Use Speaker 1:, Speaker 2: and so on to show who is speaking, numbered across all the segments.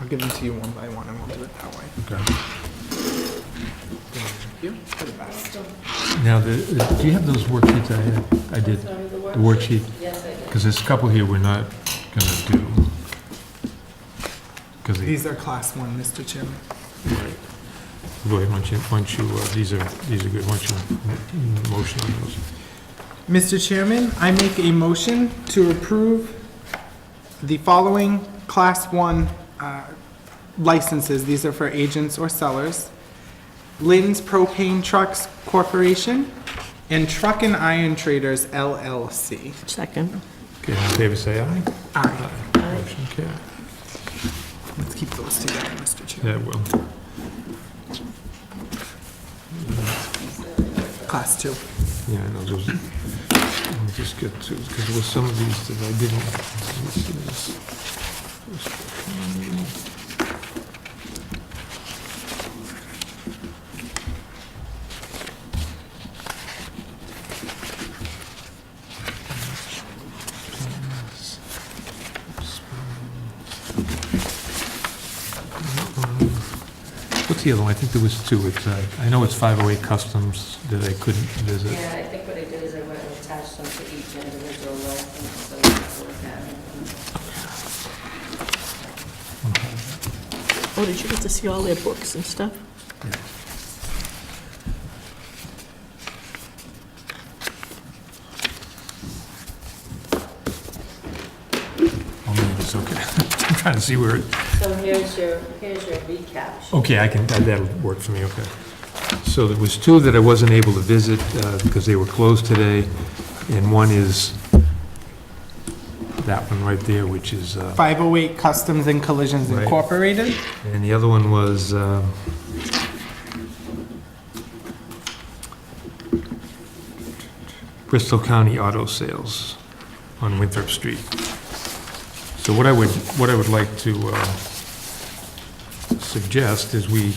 Speaker 1: I'll give them to you one by one and we'll do it that way.
Speaker 2: Now, the, uh, do you have those worksheets I had? I did, the worksheet,
Speaker 3: Yes, I did.
Speaker 2: because there's a couple here we're not gonna do. Because they,
Speaker 1: These are class one, Mr. Chairman.
Speaker 2: right. Go ahead, once you, once you, uh, these are, these are good, once you mm, motion on those.
Speaker 1: Mr. Chairman, I make a motion to approve the following class one uh, licenses. These are for agents or sellers. Lynn's Propane Trucks Corporation and Truck and Iron Traders LLC.
Speaker 3: Second.
Speaker 2: Okay, all in favor, say aye.
Speaker 1: Aye.
Speaker 2: Motion carried.
Speaker 1: Let's keep those together, Mr. Chairman.
Speaker 2: Yeah, well,
Speaker 1: Class two.
Speaker 2: yeah, I know, those, let me just get to, because there were some of these that I didn't. let me see this. What's the other one? I think there was two. It's, uh, I know it's 508 Customs that I couldn't visit.
Speaker 3: Yeah, I think what I did is I went and attached them to each individual license, so you can look at them.
Speaker 4: Oh, did you get to see all their books and stuff?
Speaker 2: Oh, no, it's okay. I'm trying to see where it,
Speaker 3: So here's your, here's your recap.
Speaker 2: okay, I can, that- that'll work for me, okay. So there was two that I wasn't able to visit uh, because they were closed today, and one is that one right there, which is, uh,
Speaker 1: 508 Customs and Collisions
Speaker 2: Right.
Speaker 1: Incorporated.
Speaker 2: and the other one was, um, Bristol County Auto Sales on Winthrop Street. So what I would, what I would like to uh, suggest is we,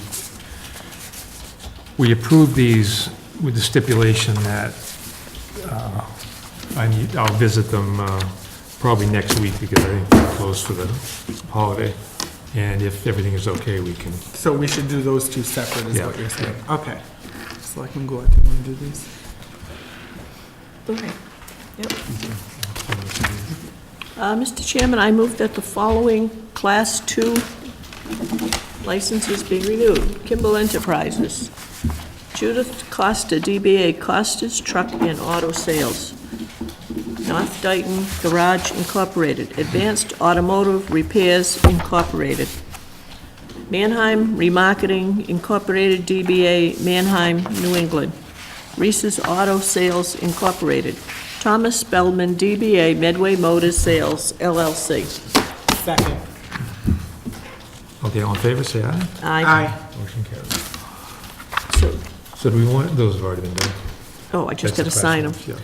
Speaker 2: we approve these with the stipulation that uh, I need, I'll visit them uh, probably next week because I think they're closed for the holiday. And if everything is okay, we can,
Speaker 1: So we should do those two separate, is
Speaker 2: Yeah,
Speaker 1: what you're saying? Okay. Selectman Goulart, do you want to do these?
Speaker 4: Okay. Yep. Uh, Mr. Chairman, I move that the following Class 2 licenses be renewed. Kimball Enterprises, Judith Costa, DBA Costa's Truck and Auto Sales, North Dayton Garage Incorporated, Advanced Automotive Repairs Incorporated, Manheim Remarketing Incorporated, DBA Manheim, New England, Reese's Auto Sales Incorporated, Thomas Spellman, DBA Medway Motor Sales LLC.
Speaker 1: Second.
Speaker 2: okay, all in favor, say aye.
Speaker 1: Aye.
Speaker 2: Motion carries.
Speaker 4: So-
Speaker 2: So do we want, those have already been done.
Speaker 4: Oh, I just got to
Speaker 2: That's the
Speaker 4: sign them.
Speaker 2: class one, yeah.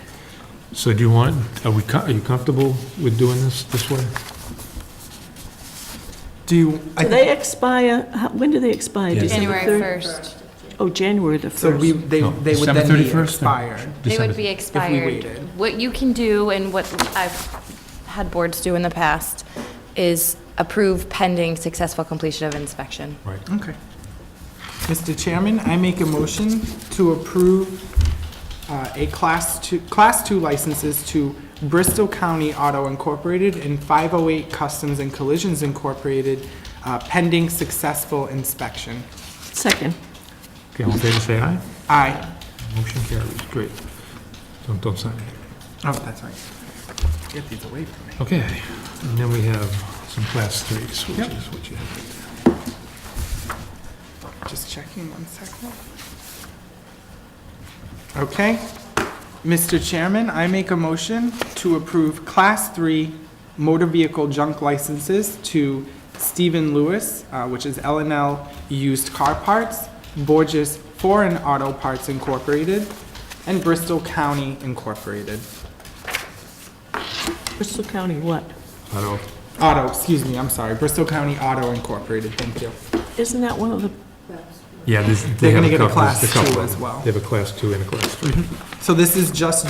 Speaker 2: So do you want, are we, co- are you comfortable with doing this this way?
Speaker 1: Do you, I
Speaker 4: Do
Speaker 1: think,
Speaker 4: they expire, how- when do they expire?
Speaker 2: Yeah.
Speaker 4: December
Speaker 5: January
Speaker 4: third?
Speaker 5: 1st.
Speaker 4: Oh, January the
Speaker 1: so we,
Speaker 4: 1st.
Speaker 1: they,
Speaker 2: No,
Speaker 1: they would
Speaker 2: December
Speaker 1: then be
Speaker 2: 31st, no.
Speaker 1: expired.
Speaker 5: They
Speaker 2: December-
Speaker 5: would be expired.
Speaker 1: waited.
Speaker 5: What you can do, and what I've had boards do in the past, is approve pending successful completion of inspection.
Speaker 2: Right,
Speaker 1: Okay. Mr. Chairman, I make a motion to approve uh, a class two, class two licenses to Bristol County Auto Incorporated and 508 Customs and Collisions Incorporated uh, pending successful inspection.
Speaker 4: Second.
Speaker 2: okay, all in favor, say aye.
Speaker 1: Aye.
Speaker 2: Motion carries, great. Don't, don't sign it.
Speaker 1: Oh, that's right. Get these away from me.
Speaker 2: Okay, and then we have some class threes, which
Speaker 1: Yep.
Speaker 2: is what you have.
Speaker 1: Just checking one second. Okay. Mr. Chairman, I make a motion to approve Class 3 motor vehicle junk licenses to Stephen Lewis, uh, which is l and L Used Car Parts, Borges Foreign Auto Parts Incorporated, and Bristol County Incorporated.
Speaker 4: Bristol County what?
Speaker 2: Auto,
Speaker 1: Auto, excuse me, I'm sorry, Bristol County Auto Incorporated, thank you.
Speaker 4: Isn't that one of the,
Speaker 2: yeah, this,
Speaker 1: They're
Speaker 2: they have
Speaker 1: gonna
Speaker 2: a
Speaker 1: get a
Speaker 2: couple, there's
Speaker 1: class
Speaker 2: couple
Speaker 1: two
Speaker 2: of
Speaker 1: as
Speaker 2: them.
Speaker 1: well.
Speaker 2: They have a class two and a class three.
Speaker 1: So this is just